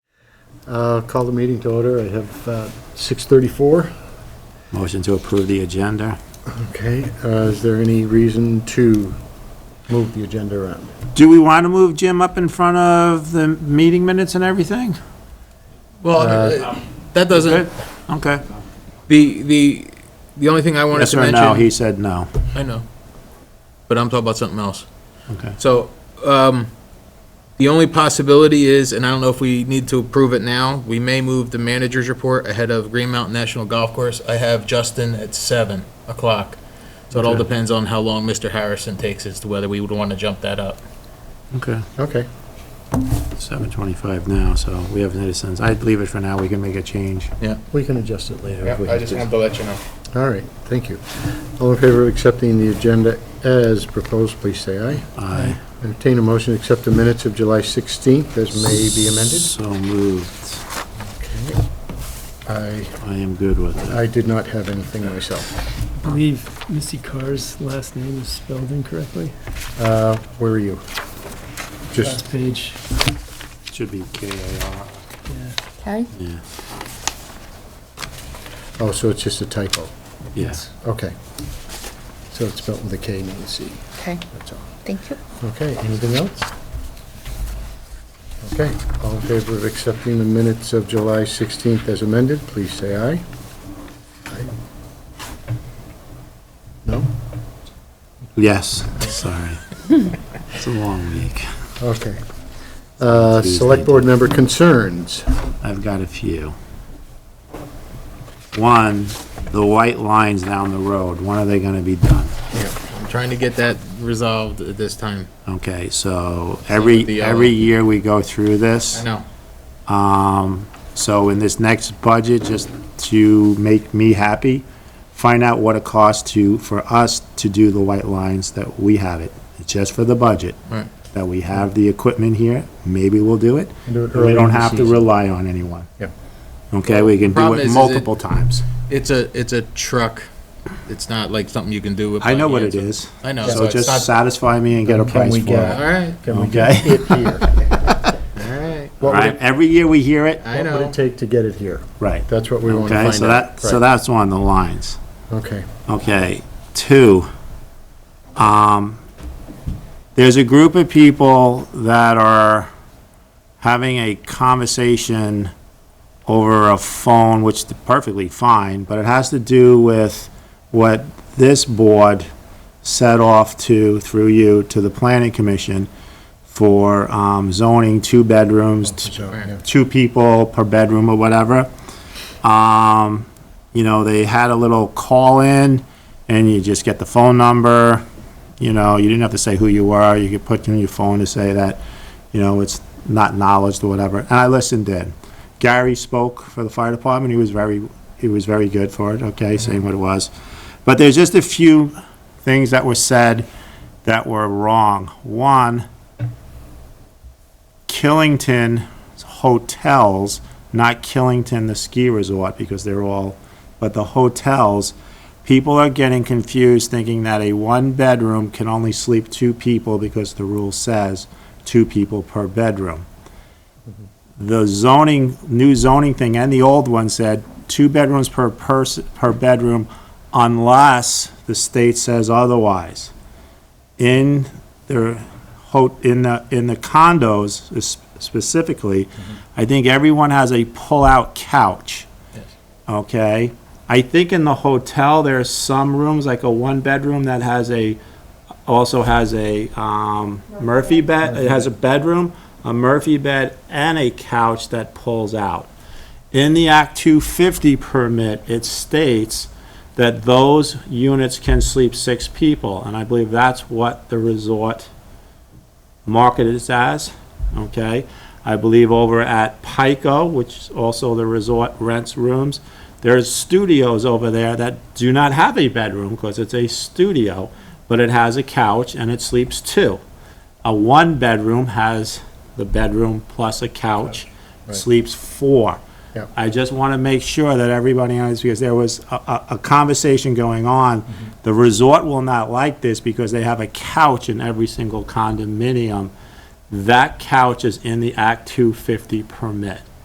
Uh, Call the meeting to order. I have uh, 6:34. Motion to approve the agenda. Okay, uh, is there any reason to move the agenda around? Do we want to move Jim up in front of the meeting minutes and everything? Well, uh, that doesn't, Okay. the, the, the only thing I wanted Yes to or no? mention. He said no. I know. But I'm talking about something else. Okay. So, um, the only possibility is, and I don't know if we need to approve it now, we may move the manager's report ahead of Green Mountain National Golf Course. I have Justin at seven o'clock. So it all Okay. depends on how long Mr. Harrison takes as to whether we would want to jump that up. Okay. Okay, Seven twenty-five now, so we haven't had a sense. I'd leave it for now. We can make a change. we can adjust it later. if we have to. to let you know. All right, thank you. All in favor of accepting the agenda as proposed, please say aye. Aye. Entertain a motion to accept the minutes of July 16th as may be amended. So moved. I, I am good with it. I did not have anything myself. I believe Missy Carr's last name is spelled incorrectly. Uh, Where are you? Just, Last page, Should be K A R. yeah. Okay. Yeah. oh, so it's just a typo. Yes. Okay. So it's spelled with a K, not a C, Okay, that's all. thank you. Okay, anything else? Okay, all in favor of accepting the minutes of July 16th as amended, please say aye. Aye. No? Yes. Sorry. It's a long week. Okay. Uh, Select Board member concerns. I've got a few. One, the white lines down the road, when are they gonna be done? I'm trying to get that resolved at this time. Okay, so The every, yellow. every year we go through I this. know. Um, so in this next budget, just to make me happy, find out what it costs to, for us to do the white lines that we have it. It's just for the budget. Right. That we have the equipment here, maybe we'll do it. Do it early We in don't the have to season. rely on anyone. Yeah. Okay, we can do Problem is, it is it- multiple times. It's a, it's a truck. It's not like something you can do with. I know what it finance. is. I know. So it's not- just satisfy me and get a Can we price for get- it. All right, Can we Okay. get it here? all right. What would Right, it- every year we hear it, I What would know. it take to get it here? right. That's what we want to find out. Okay, so that, so Right. that's on the lines. Okay, Okay, two, um, there's a group of people that are having a conversation over a phone, which is perfectly fine, but it has to do with what this board set off to, through you, to the planning commission for, um, zoning two bedrooms, t- so, yeah. two people per bedroom or whatever. Um, you know, they had a little call-in, and you just get the phone number, you know, you didn't have to say who you were, you could put in your phone to say that, you know, it's not knowledge or whatever, and I listened in. Gary spoke for the fire department, he was very, he was very good for it, okay, saying what it was. But there's just a few things that were said that were wrong. One, Killington hotels, not Killington, the ski resort, because they're all, but the hotels, people are getting confused thinking that a one-bedroom can only sleep two people because the rule says two people per bedroom. The zoning, new zoning thing and the old one said two bedrooms per person, per bedroom unless the state says otherwise. In their ho, in the, in the condos s- specifically, I think everyone has a pull-out couch. Yes. Okay? I think in the hotel, there are some rooms, like a one-bedroom that has a, also has a, um, Murphy bed, it has a bedroom, a Murphy bed, and a couch that pulls out. In the Act 250 permit, it states that those units can sleep six people, and I believe that's what the resort marketed it as, okay? I believe over at Pico, which is also the resort rents rooms, there's studios over there that do not have a bedroom because it's a studio, but it has a couch and it sleeps two. A one-bedroom has the bedroom plus a couch, Right. sleeps four. Yep. I just want to make sure that everybody understands, because there was a, a, a conversation going on. The resort will not like this because they have a couch in every single condominium. That couch is in the Act 250 permit.